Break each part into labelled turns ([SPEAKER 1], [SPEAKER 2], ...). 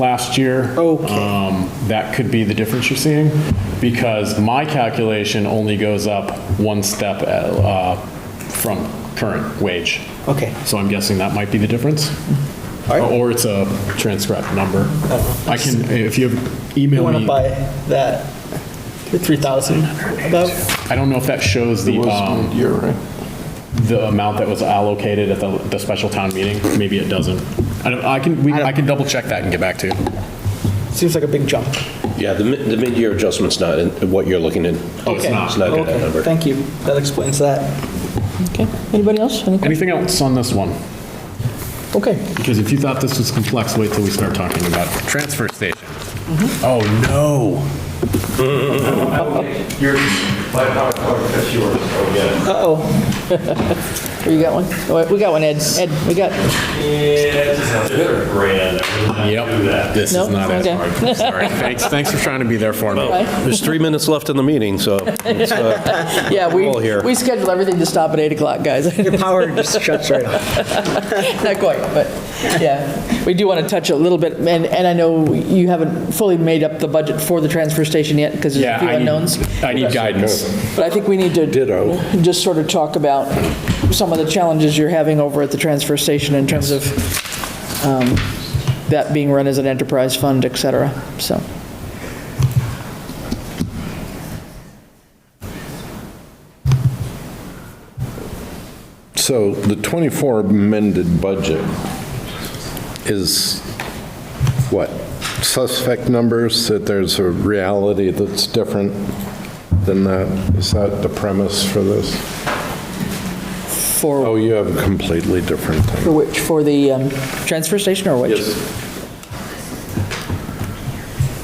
[SPEAKER 1] last year.
[SPEAKER 2] Okay.
[SPEAKER 1] Um, That could be the difference you're seeing, because my calculation only goes up one step uh, from current wage.
[SPEAKER 2] Okay.
[SPEAKER 1] So I'm guessing that might be the difference.
[SPEAKER 2] All right. Uh-huh.
[SPEAKER 1] Or it's a transcript number. I can, if you
[SPEAKER 2] You
[SPEAKER 1] email
[SPEAKER 2] want to
[SPEAKER 1] me,
[SPEAKER 2] buy that for 3,000 about?
[SPEAKER 1] I don't know if that shows the, um,
[SPEAKER 3] year, right?
[SPEAKER 1] the amount that was allocated at the, the special town meeting, maybe it doesn't. I don't, I can, we, I can double check that and get back to you.
[SPEAKER 2] Seems like a big jump.
[SPEAKER 4] Yeah, the mid- the mid-year adjustment's not in what you're looking at.
[SPEAKER 1] Oh, it's not.
[SPEAKER 4] It's not in that
[SPEAKER 2] Okay,
[SPEAKER 4] number.
[SPEAKER 2] Thank you. That explains that.
[SPEAKER 5] Okay, anybody else? Any questions?
[SPEAKER 1] Anything else on this one?
[SPEAKER 5] Okay,
[SPEAKER 1] Because if you thought this was complex, wait till we start talking about transfer station.
[SPEAKER 5] Mm-hmm.
[SPEAKER 1] Oh, no.
[SPEAKER 6] Your, my PowerPoint, that's yours. Oh, yeah.
[SPEAKER 2] Uh-oh,
[SPEAKER 5] Oh, you got one? All right, We got one, Ed. Ed, we got,
[SPEAKER 6] Yeah, it's just a bit of grand. I would not do
[SPEAKER 1] Yep,
[SPEAKER 6] that.
[SPEAKER 1] this is
[SPEAKER 5] Nope,
[SPEAKER 1] not as
[SPEAKER 5] okay.
[SPEAKER 1] hard. Sorry. Thanks, thanks for trying to be there for me.
[SPEAKER 5] right?
[SPEAKER 4] There's three minutes left in the meeting, so it's, uh,
[SPEAKER 5] yeah, we,
[SPEAKER 4] All here.
[SPEAKER 5] we scheduled everything to stop at 8 o'clock, guys.
[SPEAKER 2] your power just shuts right off.
[SPEAKER 5] Not quite, but, yeah. We do want to touch a little bit, and, and I know you haven't fully made up the budget for the transfer station yet, because there's
[SPEAKER 1] Yeah,
[SPEAKER 5] a few
[SPEAKER 1] I need-
[SPEAKER 5] unknowns.
[SPEAKER 1] I need guidance.
[SPEAKER 5] But I think we need to.
[SPEAKER 4] Ditto.
[SPEAKER 5] Just sort of talk about some of the challenges you're having over at the transfer station in terms of um, that being run as an enterprise fund, et cetera, so.
[SPEAKER 3] So the 24 amended budget is what? Suspect numbers, that there's a reality that's different than that? Is that the premise for this?
[SPEAKER 5] For
[SPEAKER 3] Oh, you have a completely different thing.
[SPEAKER 5] For which, for the um, transfer station or which?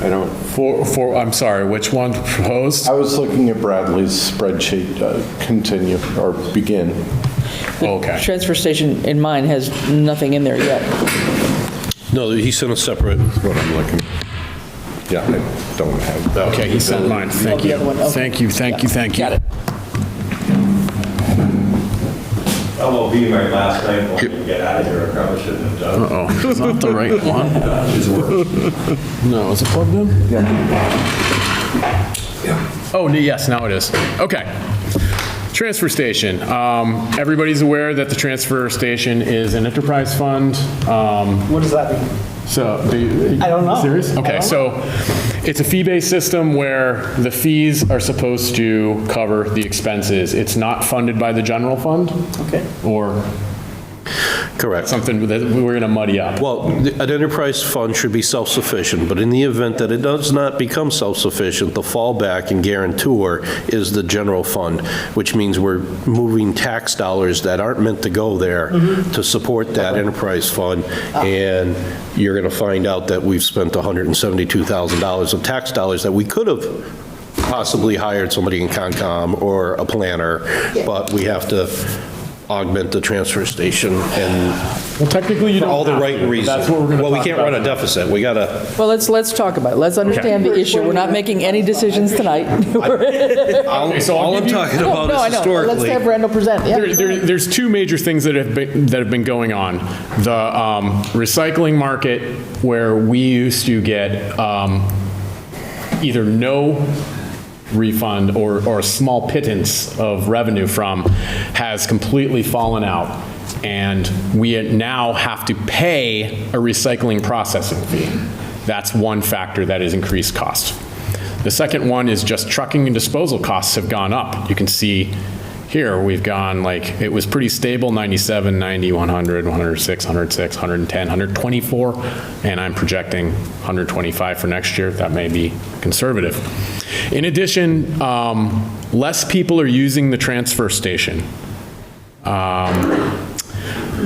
[SPEAKER 3] I don't,
[SPEAKER 1] For, for, I'm sorry, which one proposed?
[SPEAKER 3] I was looking at Bradley's spreadsheet, Uh, continue, or begin.
[SPEAKER 1] Okay.
[SPEAKER 5] Transfer station in mine has nothing in there yet.
[SPEAKER 4] no, he sent a separate,
[SPEAKER 3] What I'm looking, yeah, I don't have that.
[SPEAKER 1] Okay, he sent mine, thank
[SPEAKER 5] the
[SPEAKER 1] you.
[SPEAKER 5] other one, okay.
[SPEAKER 1] Thank you, thank you, thank you.
[SPEAKER 5] Got it.
[SPEAKER 6] That will be my last night when you get out of here. I probably shouldn't have done it.
[SPEAKER 1] Oh, it's not the right one. No, is it plugged in? Yeah. Oh, n- yes, now it is. Okay. Transfer station. Um, Everybody's aware that the transfer station is an enterprise fund. Um,
[SPEAKER 2] What does that mean?
[SPEAKER 1] so, the-
[SPEAKER 2] I don't know.
[SPEAKER 1] Serious?
[SPEAKER 2] I
[SPEAKER 1] Okay,
[SPEAKER 2] don't
[SPEAKER 1] so it's a fee-based system where the fees are supposed to cover the expenses. It's not funded by the general fund.
[SPEAKER 2] Okay.
[SPEAKER 1] Or
[SPEAKER 4] correct.
[SPEAKER 1] something that we're going to muddy up.
[SPEAKER 4] Well, the- an enterprise fund should be self-sufficient, but in the event that it does not become self-sufficient, the fallback and guarantor is the general fund, which means we're moving tax dollars that aren't meant to go there to support that enterprise fund, and you're going to find out that we've spent $172,000 of tax dollars that we could have possibly hired somebody in Concom or a planner, but we have to augment the transfer station and
[SPEAKER 1] Well, technically, you
[SPEAKER 4] for
[SPEAKER 1] don't
[SPEAKER 4] all the
[SPEAKER 1] have
[SPEAKER 4] right
[SPEAKER 1] to, but
[SPEAKER 4] reasons.
[SPEAKER 1] That's what we're going to
[SPEAKER 4] Well, we can't run a deficit, we gotta,
[SPEAKER 5] Well, let's, let's talk about it. Let's understand the issue. We're not making any decisions tonight.
[SPEAKER 1] so I'll
[SPEAKER 4] all I'm
[SPEAKER 1] give you-
[SPEAKER 4] talking
[SPEAKER 5] No,
[SPEAKER 4] about
[SPEAKER 5] no, I
[SPEAKER 4] is
[SPEAKER 5] know. Let's
[SPEAKER 4] historically.
[SPEAKER 5] have Randall present,
[SPEAKER 1] There,
[SPEAKER 5] yeah.
[SPEAKER 1] there, there's two major things that have been, that have been going on. The um, recycling market, where we used to get um, either no refund or, or a small pittance of revenue from, has completely fallen out. And we now have to pay a recycling processing fee. That's one factor that has increased cost. The second one is just trucking and disposal costs have gone up. You can see here, we've gone like, it was pretty stable, 97, 90, 100, 106, 106, 110, 124, and I'm projecting 125 for next year. That may be conservative. In addition, um, less people are using the transfer station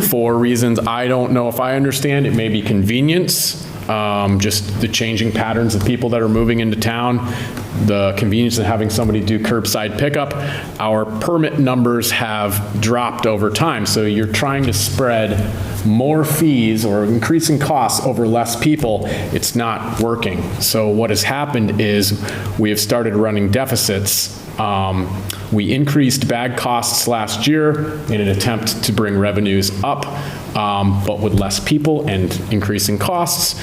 [SPEAKER 1] for reasons I don't know if I understand. It may be convenience, um, just the changing patterns of people that are moving into town, the convenience of having somebody do curbside pickup. Our permit numbers have dropped over time, so you're trying to spread more fees or increasing costs over less people. It's not working. So what has happened is we have started running deficits um, We increased bag costs last year in an attempt to bring revenues up, um, but with less people and increasing costs.